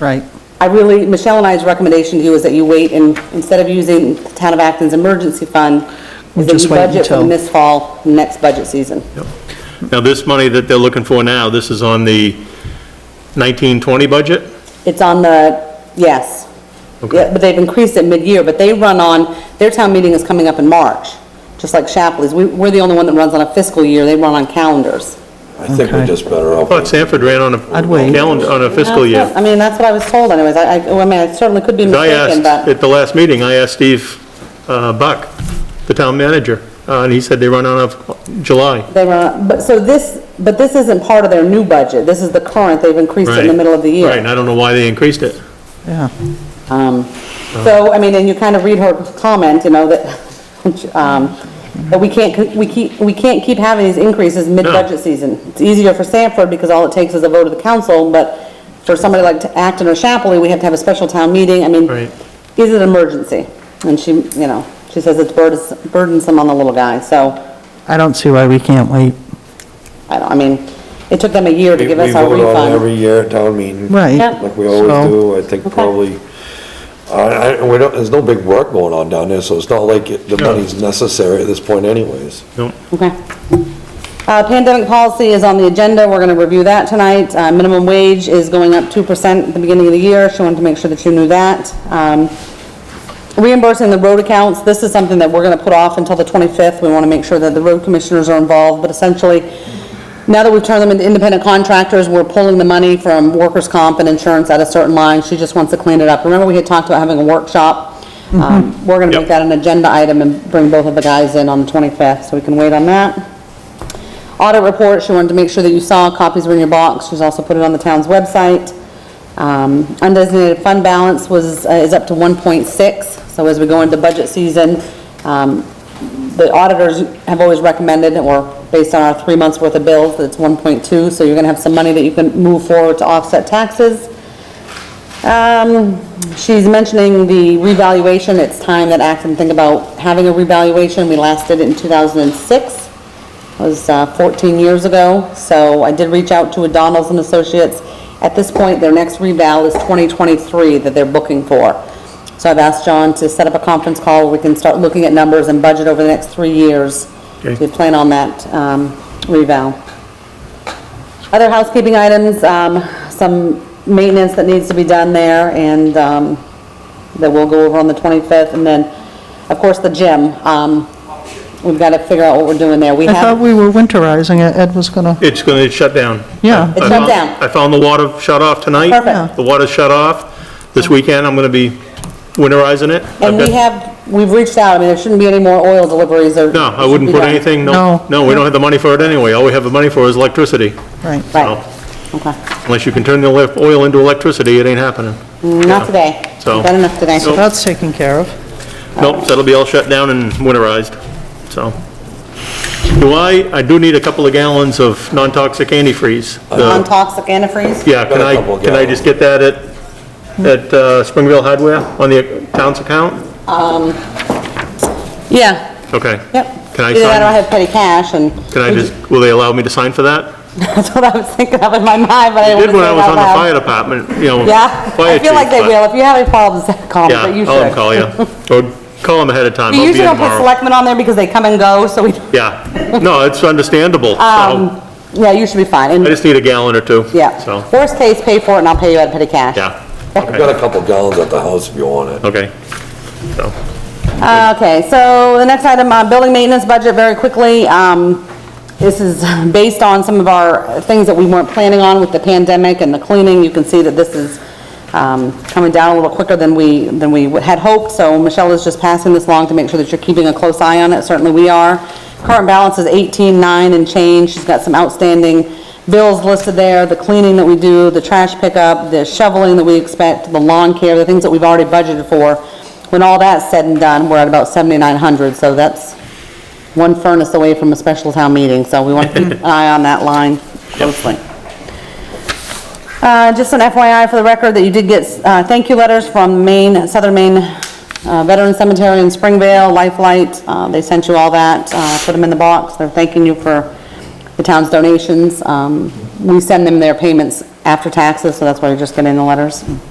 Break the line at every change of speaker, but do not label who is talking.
Right.
I really, Michelle and I's recommendation to you is that you wait and, instead of using the Town of Acton's emergency fund,
We
is that
just
you
wait
budget
until-
from this fall, next budget season.
Now, this money that they're looking for now, this is on the 1920 budget?
It's on the, yes.
Okay.
Yeah, But they've increased it mid-year, but they run on, their town meeting is coming up in March, just like Shapley's. We, we're the only one that runs on a fiscal year, they run on calendars.
I think we're
Okay.
just better off.
But Sanford ran on a
I'd wait.
calendar, on a fiscal
That's
year.
what- I mean, that's what I was told anyways, I, I, well, I mean, I certainly could be
I
mistaken,
asked,
but,
at the last meeting, I asked Steve uh, Buck, the town manager, uh, and he said they run on a July.
they run, but, so this, but this isn't part of their new budget, this is the current, they've increased it in the
Right.
middle of the year.
Right, and I don't know why they increased it.
Yeah.
Um, So, I mean, and you kind of read her comment, you know, that, um, that we can't, we keep, we can't keep having these increases mid-budget season. It's easier for Sanford because all it takes is a vote of the council, but for somebody like Acton or Chapley, we have to have a special town meeting. I mean,
Right.
is it an emergency? And she, you know, she says it's burdens- burdensome on the little guy, so,
I don't see why we can't wait.
I don't, I mean, it took them a year to
We we
give us our
vote on it every
refund.
year, town meeting.
Right.
Yep.
Like we always
So-
do, I think probably, I, I, we don't, there's no big work going on down there, so it's not like it- the
No.
money's necessary at this point anyways.
No.
Okay. Uh, Pandemic policy is on the agenda, we're going to review that tonight. Uh, Minimum wage is going up 2% at the beginning of the year, she wanted to make sure that you knew that. Um, Reimbursing the road accounts, this is something that we're going to put off until the 25th. We want to make sure that the road commissioners are involved, but essentially, now that we've turned them into independent contractors, we're pulling the money from workers' comp and insurance at a certain line, she just wants to clean it up. Remember, we had talked about having a workshop? Um, We're going to make
Yep.
that an agenda item and bring both of the guys in on the 25th, so we can wait on that. Audit report, she wanted to make sure that you saw, copies were in your box, she's also put it on the town's website. Um, Undesignated fund balance was, uh, is up to 1.6, so as we go into budget season, um, the auditors have always recommended, or based on our three months' worth of bills, that it's 1.2, so you're gonna have some money that you can move forward to offset taxes. Um, she's mentioning the revaluation, it's time that Acton think about having a revaluation, we last did it in 2006 was uh, 14 years ago, so I did reach out to O'Donnell's and Associates. At this point, their next reval is 2023 that they're booking for. So I've asked John to set up a conference call where we can start looking at numbers and budget over the next three years.
Okay.
We plan on that um, reval. Other housekeeping items, um, some maintenance that needs to be done there, and um, that we'll go over on the 25th, and then, of course, the gym. Um, We've got to figure out what we're doing there. We
I thought
have,
we were winterizing it. Ed was gonna,
It's going to shut down.
Yeah.
It
I
shut
found-
down.
I found the water shut off tonight.
Perfect.
The water shut off. This weekend, I'm going to be winterizing it. I've
and we
got-
have, we've reached out, I mean, there shouldn't be any more oil deliveries or.
No, I wouldn't put anything,
No.
no, no, we don't have the money for it anyway. All we have the money for is electricity.
right.
Right, okay.
Unless you can turn the lef- oil into electricity, it ain't happening.
Not today.
So-
We've Done enough today.
So- uh,
That's taken care of.
Nope, that'll be all shut down and winterized, so. Do I, I do need a couple of gallons of non-toxic antifreeze. The-
Non-toxic antifreeze?
Yeah, can
Got a
I,
couple
can I just get that at, at uh, Springville Hardware on the town's account?
Yeah,
Okay.
yep.
Can I
Either that or I
sign,
have petty cash and.
can I just, will they allow me to sign for that?
That's what I was thinking of in my mind, but I
I
didn't
Did
want to say it
when I was
out
on the fire
loud.
department, you know.
Yeah,
fire
I feel like
chief,
they
but-
will. If you have any problems, call me, but you
Yeah,
should.
I'll call you. Or call them ahead of time,
We
I'll be in
usually don't put
tomorrow.
selectmen on there because they come and go, so we,
Yeah, no, it's understandable, so.
um, yeah, you should be fine.
I
And,
just need a gallon or two.
yeah.
So,
Worst case, pay for it and I'll pay you out of petty cash.
yeah,
I've got a couple gallons at the house if you want it.
okay. So,
Uh, Okay, so the next item, uh, building maintenance budget, very quickly. Um, This is based on some of our things that we weren't planning on with the pandemic and the cleaning. You can see that this is um, coming down a little quicker than we, than we had hoped. So Michelle is just passing this along to make sure that you're keeping a close eye on it. Certainly we are. Current balance is 18.9 and change. She's got some outstanding bills listed there, the cleaning that we do, the trash pickup, the shoveling that we expect, the lawn care, the things that we've already budgeted for. When all that's said and done, we're at about 7,900, so that's one furnace away from a special town meeting, so we want to keep an eye on that line closely. Uh, Just an FYI for the record, that you did get uh, thank you letters from Maine, Southern Maine uh, Veteran Cemetery in Springvale, Lifelight, uh, they sent you all that, uh, put them in the box, they're thanking you for the town's donations. Um, We send them their payments after taxes, so that's why you're just getting the letters.